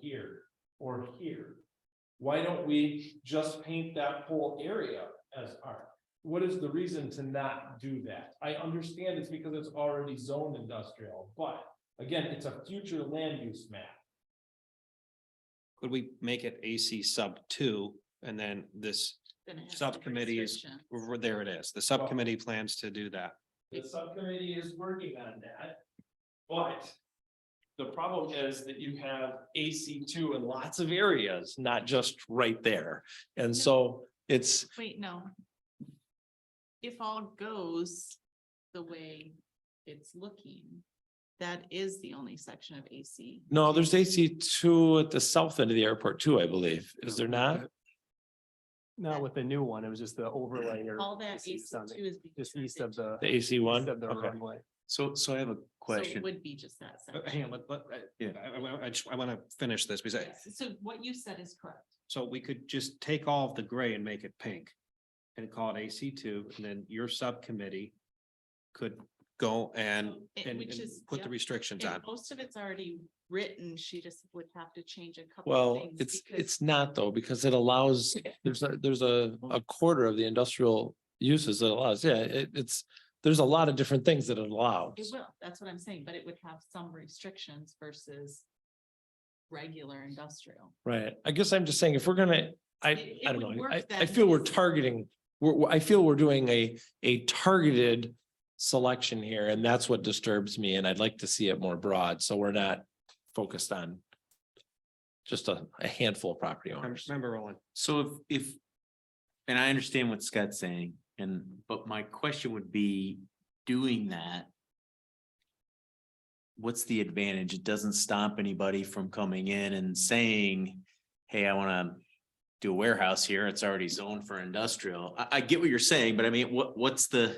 here or here. Why don't we just paint that whole area as art? What is the reason to not do that? I understand it's because it's already zoned industrial, but again, it's a future land use map. Could we make it AC sub two and then this, Then it has to be Subcommittees. restriction. r- there it is, the subcommittee plans to do that. The subcommittee is working on that. But the problem is that you have AC two in lots of areas, not just right there. And so it's, Wait, no. If all goes the way it's looking, that is the only section of AC. no, there's AC two at the south end of the airport too, I believe. Is there not? Not with the new one, it was just the overlay or All that This AC is two on is. the- being just turned east of into- the. The AC one? east Of the Okay. runway. So, so I have a So it question. would be just Uh, that section. But Uh, hang on, let, let, Yeah. I- I, I, I just, I wanna finish this, because I- Yes, So what you said is correct. so we could just take all of the gray and make it pink. And call it AC two, and then your subcommittee could go and, So Oh, it- and, which and is- put the yep. restrictions on. And most of it's already written. She just would have to change a couple. of Well, things it's, because- it's not though, because it allows, there's a, there's a, a quarter of the industrial uses that allows, yeah, it, it's. There's a lot of different things that it It allows. will, that's what I'm saying, but it would have some restrictions versus regular industrial. Right. I guess I'm just saying, if we're gonna, I, It- it I don't would know, work I, I then. feel we're targeting. We're, we're- I feel we're doing a, a targeted selection here and that's what disturbs me and I'd like to see it more broad, so we're not focused on. Just a, a handful of property Rem- owners. Remember, Roland, So if, if, and I understand what Scott's saying, and, but my question would be, doing that. What's the advantage? It doesn't stop anybody from coming in and saying, hey, I wanna do a warehouse here. It's already zoned for industrial. I, I get what you're saying, but I mean, what, what's the?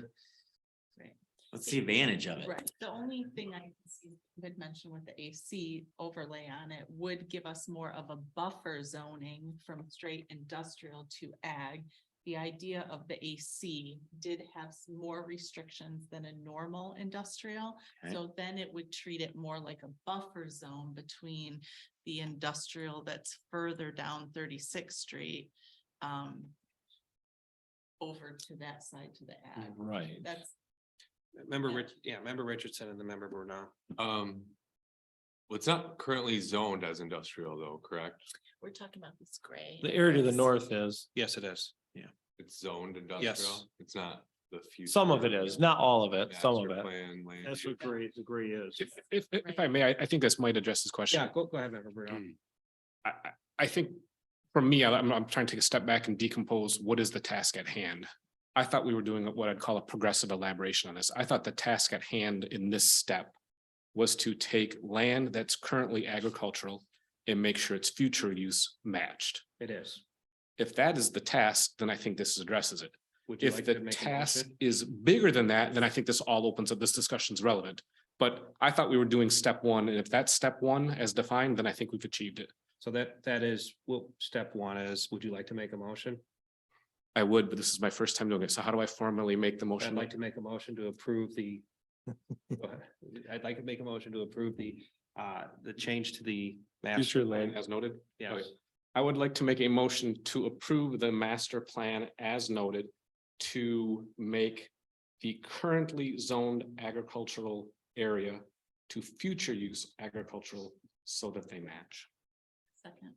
Right. What's the advantage of it? Right, the only thing I can see would mention with the AC overlay on it would give us more of a buffer zoning from straight industrial to ag. The idea of the AC did have s- more restrictions than a normal industrial. Okay. So then it would treat it more like a buffer zone between the industrial that's further down Thirty-Sixth Street. Um. Over to that side to the ag, Right. that's remember Rich, yeah, remember Richardson and the member Brunel. Um. Well, it's not currently zoned as industrial though, correct? We're talking about this gray. The area to the Yes. north is. Yes, it is. It's zoned industrial. It's not the future. Some of it is, not all of it, some of master it. Plan, land. That's use. what gray, the gray is. If, if, if if I may, I, I think this might address this question. Yeah, go, go ahead, member Mm. Brunel. I, I, I think for me, I'm, I'm trying to take a step back and decompose what is the task at hand. I thought we were doing what I'd call a progressive elaboration on this. I thought the task at hand in this step was to take land that's currently agricultural and make sure its future use matched. It is. If that is the task, then I think this addresses it. Would you If like the to make a task motion? is bigger than that, then I think this all opens up, this discussion's relevant. But I thought we were doing step one, and if that's step one as defined, then I think we've achieved it. So that, that is, well, step one is, would you like to make a motion? I would, but this is my first time doing it, so how do I formally make the I'd motion? like to make a motion to approve the. Go ahead. I'd like to make a motion to approve the, uh, the change to the. master Future land. As noted, Yes, I would like to make a motion to approve the master plan as noted to make the currently zoned agricultural area to future use agricultural so that they match. Second.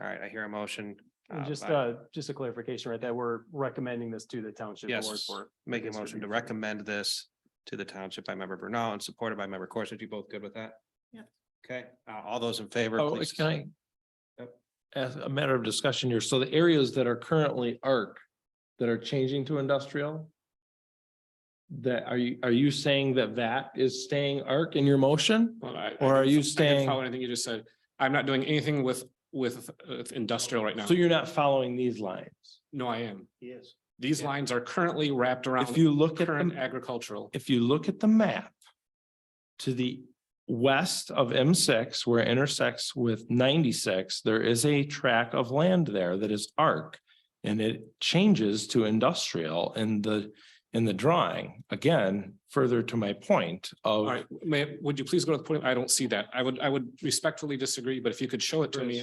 all right, I hear a motion. And uh, Just, by- uh, just a clarification, right, that we're recommending this to the township board Yes, for. make a motion to recommend this to the township by member Brunel and supported by member Corson. You both good with that? Yep. Okay, uh, all those in favor, Oh, please. can I? Yep. As a matter of discussion here, so the areas that are currently arc, that are changing to industrial? That, are you, are you saying that that is staying arc in your motion? Well, I- Or are I didn't- you I didn't staying- Follow anything you just said. I'm not doing anything with, with uh, industrial right now. So you're not following these lines? No, I am. Yes. These lines are currently wrapped around. If you look at, Current the- agricultural. if you look at the map to the west of M six, where it intersects with ninety-six, there is a tract of land there that is arc. And it changes to industrial and the in the drawing, again, further to my point All of right, may, would you please go to the point? I don't see that. I would, I would respectfully disagree, but if you could show it to me,